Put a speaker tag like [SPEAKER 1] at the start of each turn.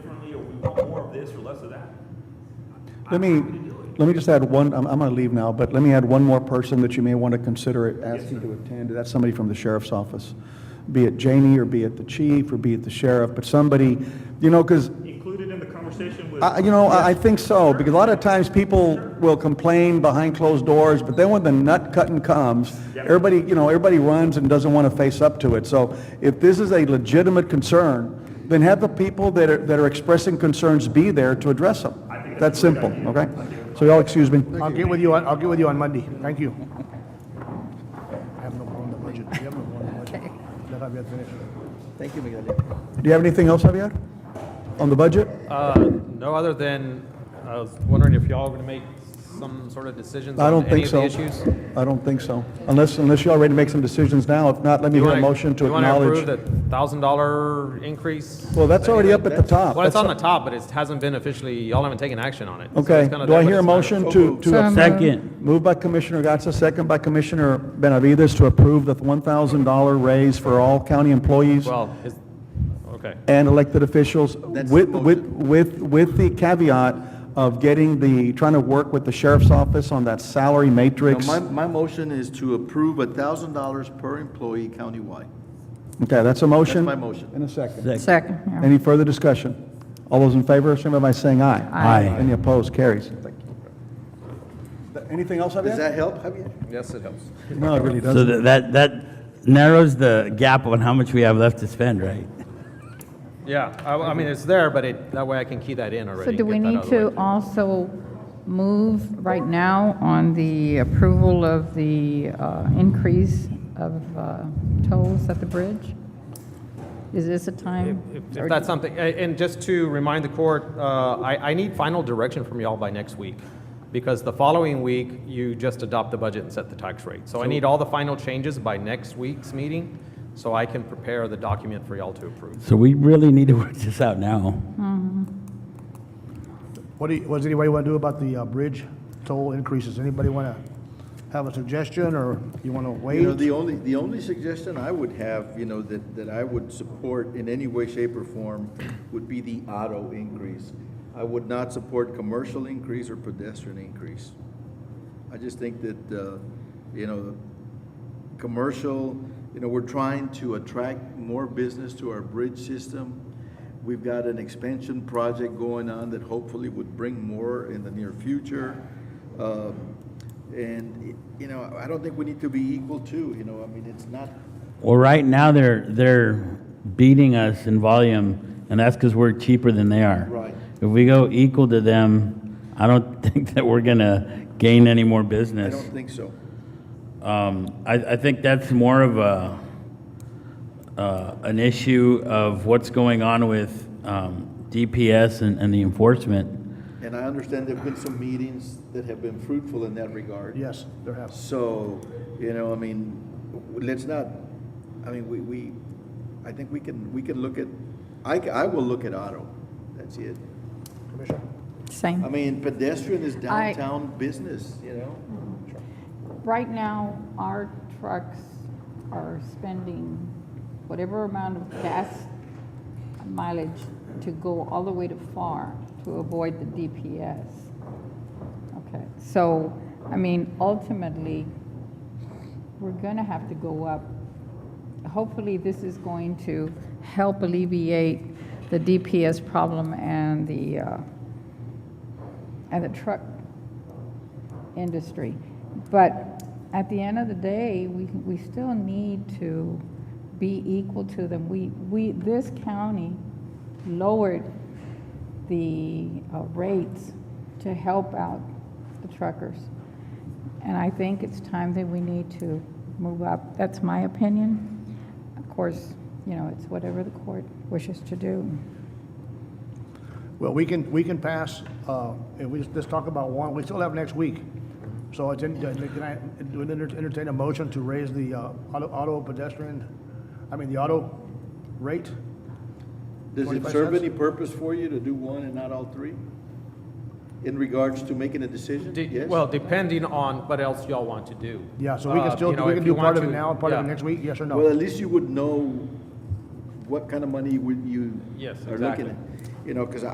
[SPEAKER 1] of this or less of that.
[SPEAKER 2] Let me, let me just add one, I'm, I'm going to leave now, but let me add one more person that you may want to consider asking to attend. That's somebody from the sheriff's office, be it Janie, or be it the chief, or be it the sheriff, but somebody, you know, because,
[SPEAKER 1] Included in the conversation with.
[SPEAKER 2] I, you know, I I think so, because a lot of times people will complain behind closed doors, but then when the nut cutting comes,
[SPEAKER 1] Yep.
[SPEAKER 2] everybody, you know, everybody runs and doesn't want to face up to it. So if this is a legitimate concern, then have the people that are, that are expressing concerns be there to address them.
[SPEAKER 1] I think
[SPEAKER 2] That's
[SPEAKER 1] that's a great
[SPEAKER 2] simple,
[SPEAKER 1] idea.
[SPEAKER 2] okay? So y'all excuse me.
[SPEAKER 3] I'll get with you, on- I'll get with you on Monday. Thank you. I have no problem with the budget. We have no problem with the budget. Let Javier finish.
[SPEAKER 4] Thank you, Miguel.
[SPEAKER 2] Do you have anything else, Javier, on the budget?
[SPEAKER 5] Uh, No, other than, I was wondering if y'all were going to make some sort of decisions
[SPEAKER 2] I
[SPEAKER 5] on
[SPEAKER 2] don't think
[SPEAKER 5] any of the
[SPEAKER 2] so.
[SPEAKER 5] issues?
[SPEAKER 2] I don't think so, unless, unless y'all ready to make some decisions now. If not, let me
[SPEAKER 5] You
[SPEAKER 2] hear a
[SPEAKER 5] wanna-
[SPEAKER 2] motion to
[SPEAKER 5] You want
[SPEAKER 2] acknowledge.
[SPEAKER 5] to approve that $1,000 increase?
[SPEAKER 2] Well, that's already up at the top.
[SPEAKER 5] Well, it's
[SPEAKER 2] That's-
[SPEAKER 5] on the top, but it hasn't been officially, y'all haven't taken action on it. So
[SPEAKER 2] Okay,
[SPEAKER 5] it's kinda
[SPEAKER 2] do I
[SPEAKER 5] there, but
[SPEAKER 2] hear a
[SPEAKER 5] it's not-
[SPEAKER 2] motion to, to,
[SPEAKER 6] Second.
[SPEAKER 2] moved by Commissioner Gatsa, second by Commissioner Benavides to approve the $1,000 raise for all county employees
[SPEAKER 5] Well, is, okay.
[SPEAKER 2] and elected officials
[SPEAKER 4] That's
[SPEAKER 2] with,
[SPEAKER 4] the
[SPEAKER 2] with, with, with the caveat of getting the, trying to work with the sheriff's office on that salary matrix.
[SPEAKER 4] My, my motion is to approve a thousand dollars per employee countywide.
[SPEAKER 2] Okay, that's a motion?
[SPEAKER 4] my motion.
[SPEAKER 2] In a second.
[SPEAKER 6] Second. yeah.
[SPEAKER 2] Any further discussion? All those in favor, signify by saying aye.
[SPEAKER 6] Aye.
[SPEAKER 2] Any opposed, carries. Anything else,
[SPEAKER 4] Does
[SPEAKER 2] Javier?
[SPEAKER 4] that help, Javier?
[SPEAKER 5] Yes, it helps.
[SPEAKER 2] No, it really
[SPEAKER 6] So
[SPEAKER 2] doesn't.
[SPEAKER 6] tha- that, that narrows the gap on how much we have left to spend, right?
[SPEAKER 5] Yeah, I, I mean, it's there, but it, that way I can key that in already.
[SPEAKER 7] So
[SPEAKER 5] and
[SPEAKER 7] do we
[SPEAKER 5] get that
[SPEAKER 7] need
[SPEAKER 5] out of the way.
[SPEAKER 7] to also move right now on the approval of the uh, increase of uh, tolls at the bridge? Is this a time?
[SPEAKER 5] If-
[SPEAKER 7] or-
[SPEAKER 5] If that's something, a- and just to remind the court, uh, I, I need final direction from y'all by next week, because the following week, you just adopt the budget and set the tax rate. So I need all the final changes by next week's meeting, so I can prepare the document for y'all to approve.
[SPEAKER 6] So we really need to work this out now.
[SPEAKER 3] What do you, what does anybody want to do about the uh, bridge toll increases? Anybody want to have a suggestion, or you want to
[SPEAKER 4] You know,
[SPEAKER 3] wait?
[SPEAKER 4] the only, the only suggestion I would have, you know, that, that I would support in any way, shape, or form would be the auto increase. I would not support commercial increase or pedestrian increase. I just think that, uh, you know, commercial, you know, we're trying to attract more business to our bridge system. We've got an expansion project going on that hopefully would bring more in the near future. Um, And, you know, I don't think we need to be equal to, you know, I mean, it's not,
[SPEAKER 6] Well, right now, they're, they're beating us in volume, and that's because we're cheaper than they are.
[SPEAKER 4] Right.
[SPEAKER 6] If we go equal to them, I don't think that we're gonna gain any more
[SPEAKER 4] I
[SPEAKER 6] business.
[SPEAKER 4] don't think so.
[SPEAKER 6] Um, I, I think that's more of a, uh, an issue of what's going on with, um, DPS and, and the enforcement.
[SPEAKER 4] And I understand there've been some meetings that have been fruitful in that regard.
[SPEAKER 3] Yes, there has.
[SPEAKER 4] So, you know, I mean, w- let's not, I mean, we, we, I think we can, we can look at, I, ca- I will look at auto, that's it.
[SPEAKER 3] Commissioner?
[SPEAKER 4] I
[SPEAKER 7] Same.
[SPEAKER 4] mean, pedestrian is
[SPEAKER 7] I-
[SPEAKER 4] downtown business, you know?
[SPEAKER 7] Right now, our trucks are spending whatever amount of gas mileage to go all the way to FAR to avoid the DPS. Okay, so, I mean, ultimately, we're going to have to go up. Hopefully, this is going to help alleviate the DPS problem and the, uh, and the truck industry. But at the end of the day, we, we still need to be equal to them. We, we, this county lowered the uh, rates to help out the truckers. And I think it's time that we need to move up. That's my opinion. Of course, you know, it's whatever the court wishes to do.
[SPEAKER 3] Well, we can, we can pass, uh, if we just, just talk about one, we still have next week. So it's, in- uh, can I, do an enter- entertain a motion to raise the, uh, auto, auto pedestrian, I mean, the auto rate?
[SPEAKER 4] Does it
[SPEAKER 3] 25
[SPEAKER 4] serve
[SPEAKER 3] cents?
[SPEAKER 4] any purpose for you to do one and not all three? In regards to making a decision?
[SPEAKER 5] De-
[SPEAKER 4] Yes?
[SPEAKER 5] Well, depending on what else y'all want to do.
[SPEAKER 3] Yeah, so we can
[SPEAKER 5] Uh,
[SPEAKER 3] still,
[SPEAKER 5] you know,
[SPEAKER 3] we
[SPEAKER 5] if
[SPEAKER 3] can
[SPEAKER 5] you
[SPEAKER 3] do part
[SPEAKER 5] want
[SPEAKER 3] of it
[SPEAKER 5] to-
[SPEAKER 3] now, and part of it
[SPEAKER 5] yeah.
[SPEAKER 3] next week, yes or
[SPEAKER 4] Well,
[SPEAKER 3] no?
[SPEAKER 4] at least you would know what kind of money would you
[SPEAKER 5] Yes,
[SPEAKER 4] are looking
[SPEAKER 5] exactly.
[SPEAKER 4] at. You know, because